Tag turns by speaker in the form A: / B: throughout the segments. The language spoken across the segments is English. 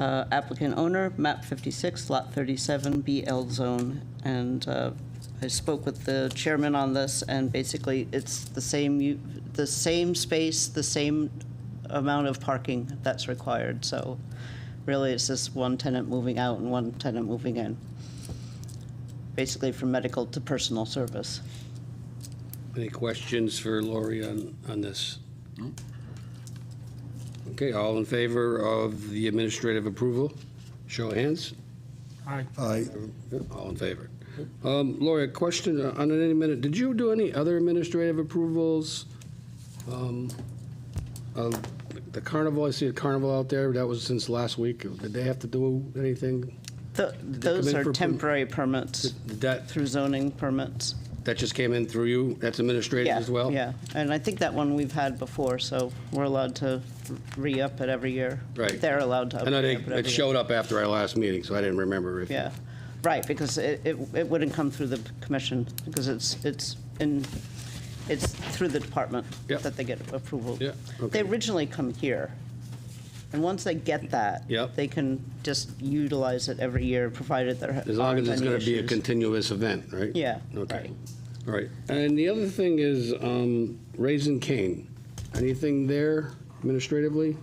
A: uh, applicant owner, map 56, lot 37, BL zone. And uh, I spoke with the chairman on this, and basically, it's the same, u- the same space, the same amount of parking that's required. So really, it's just one tenant moving out and one tenant moving in, basically from medical to personal service.
B: Any questions for Lori on, on this? Okay, all in favor of the administrative approval? Show of hands.
C: Aye.
D: Aye.
B: All in favor. Um, Lori, a question on an any minute. Did you do any other administrative approvals? Um, of The carnival, I see a carnival out there. That was since last week. Did they have to do anything?
A: Th- Those
B: in for
A: are
B: per-
A: temporary permits
B: Did that,
A: through zoning permits.
B: that just came in through you? That's administrative
A: Yeah,
B: as well?
A: Yeah, and I think that one we've had before, so we're allowed to re-up it every year.
B: Right.
A: They're allowed to.
B: I know they,
A: re-up it every
B: it
A: year.
B: showed up after our last meeting, so I didn't remember if.
A: Yeah, right, because it, it it wouldn't come through the commission, because it's, it's in, it's through the department
B: Yep.
A: that they get approval.
B: Yeah,
A: They
B: okay.
A: originally come here, and once they get that.
B: Yep.
A: They can just utilize it every year, provided there aren't any
B: As long as it's going to be a
A: issues.
B: continuous event, right?
A: Yeah,
B: Okay.
A: right.
B: All right. And the other thing is um, Raising Cane. Anything there administratively?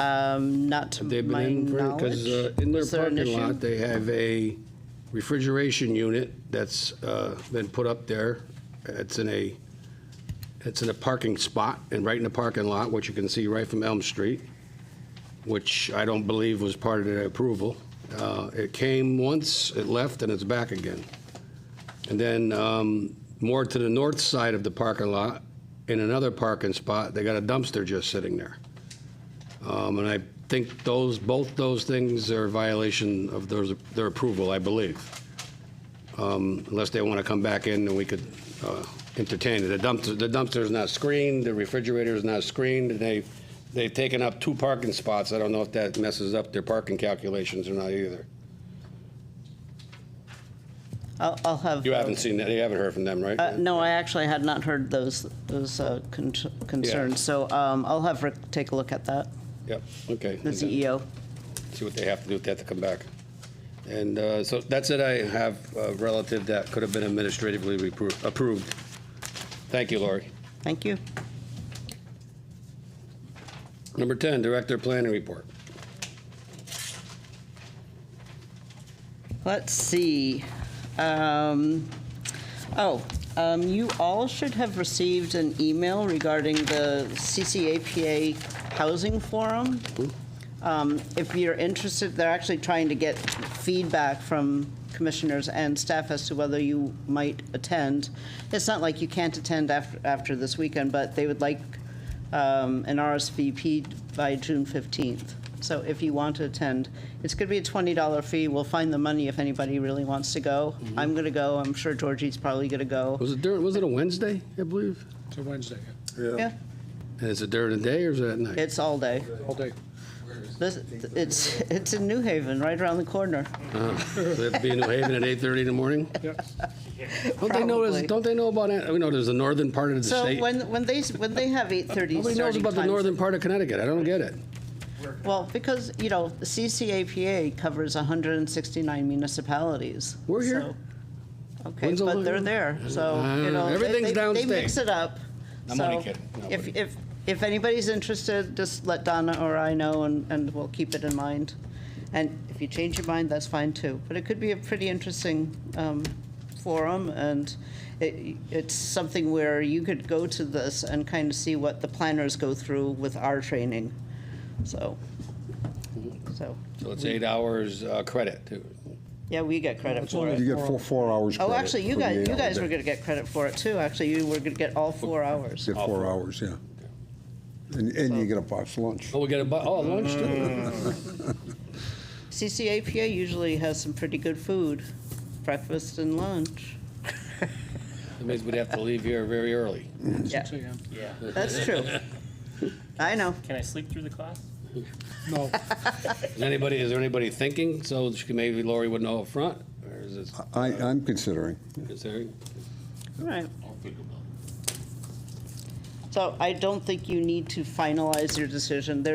A: Um, not to
B: Have they been
A: my
B: in?
A: knowledge.
B: Because uh, in their
A: Is there an
B: parking
A: issue?
B: lot, they have a refrigeration unit that's uh, been put up there. It's in a, it's in a parking spot and right in the parking lot, which you can see right from Elm Street, which I don't believe was part of the approval. Uh, It came once, it left, and it's back again. And then um, more to the north side of the parking lot, in another parking spot, they got a dumpster just sitting there. Um, And I think those, both those things are a violation of those- their approval, I believe. Um, Unless they want to come back in and we could uh, entertain it. The dumpster, the dumpster's not screened, the refrigerator's not screened, and they, they've taken up two parking spots. I don't know if that messes up their parking calculations or not either.
A: I'll, I'll have.
B: You
A: uh,
B: haven't seen that, you haven't heard from them, right?
A: Uh, No, I actually had not heard those, those uh, con- concerns, so um, I'll have Rick take a look at that,
B: Yep, okay.
A: the E CEO.
B: see what they have to do if they have to come back. And uh, so that's it. I have a relative that could have been administratively repro- approved. Thank you, Lori.
A: Thank you.
B: Number 10, Director Planning Report.
A: Let's see. Um, Oh, um, you all should have received an email regarding the CCAPA Housing Forum. Um, If you're interested, they're actually trying to get feedback from commissioners and staff as to whether you might attend. It's not like you can't attend after, after this weekend, but they would like um, an RSVP by June 15th. So if you want to attend, it's going to be a $20 fee. We'll find the money if anybody really wants to go. I'm going to go. I'm sure Georgie's probably going to go.
B: Was it during, was it a Wednesday, I believe?
C: It's a Wednesday,
A: Yeah,
B: And is it during the day or is it at night?
A: it's all day.
C: all day.
A: This, it's, it's in New Haven, right around the corner.
B: Uh, So they have to be in New Haven at 8:30 in the morning?
C: Yep.
B: Don't they know,
A: Probably.
B: don't they know about, it? we know there's the northern part of the
A: So
B: state.
A: when, when they, when they have 8:30
B: Nobody knows
A: starting
B: about the northern
A: times.
B: part of Connecticut. I don't get it.
A: Well, because, you know, the CCAPA covers 169 municipalities.
B: We're here.
A: so- Okay,
B: When's the
A: but
B: lo-
A: they're there, so, you know.
B: Uh,
A: they-
B: everything's
A: they- They
B: downstate.
A: mix it up.
B: I'm only
A: so
B: kidding. No,
A: If,
B: but-
A: if, if anybody's interested, just let Donna or I know and, and we'll keep it in mind. And if you change your mind, that's fine too. But it could be a pretty interesting um, forum and it, it's something where you could go to this and kind of see what the planners go through with our training. So, so,
B: So it's eight hours uh, credit, too.
A: yeah, we get credit for it.
D: You get four, four hours
A: Oh,
D: credit
A: actually, you
D: for the
A: guys, you
D: eight-hour
A: guys were
D: day.
A: gonna get credit for it too. Actually, you were gonna get all four hours.
D: Get four hours, yeah. And, and you get a box lunch.
B: Oh, we got a, bu- oh, lunch, too.
A: CCAPA usually has some pretty good food, breakfast and lunch.
B: That means we'd have to leave here very early.
A: Yeah,
C: Six AM.
E: Yeah.
A: that's true. I know.
E: Can I sleep through the class?
C: No,
B: Is anybody, is there anybody thinking, so she- maybe Lori would know up front, or is it,
D: I, I'm considering.
B: is there?
A: All right.
E: I'll think about it.
A: So I don't think you need to finalize your decision. There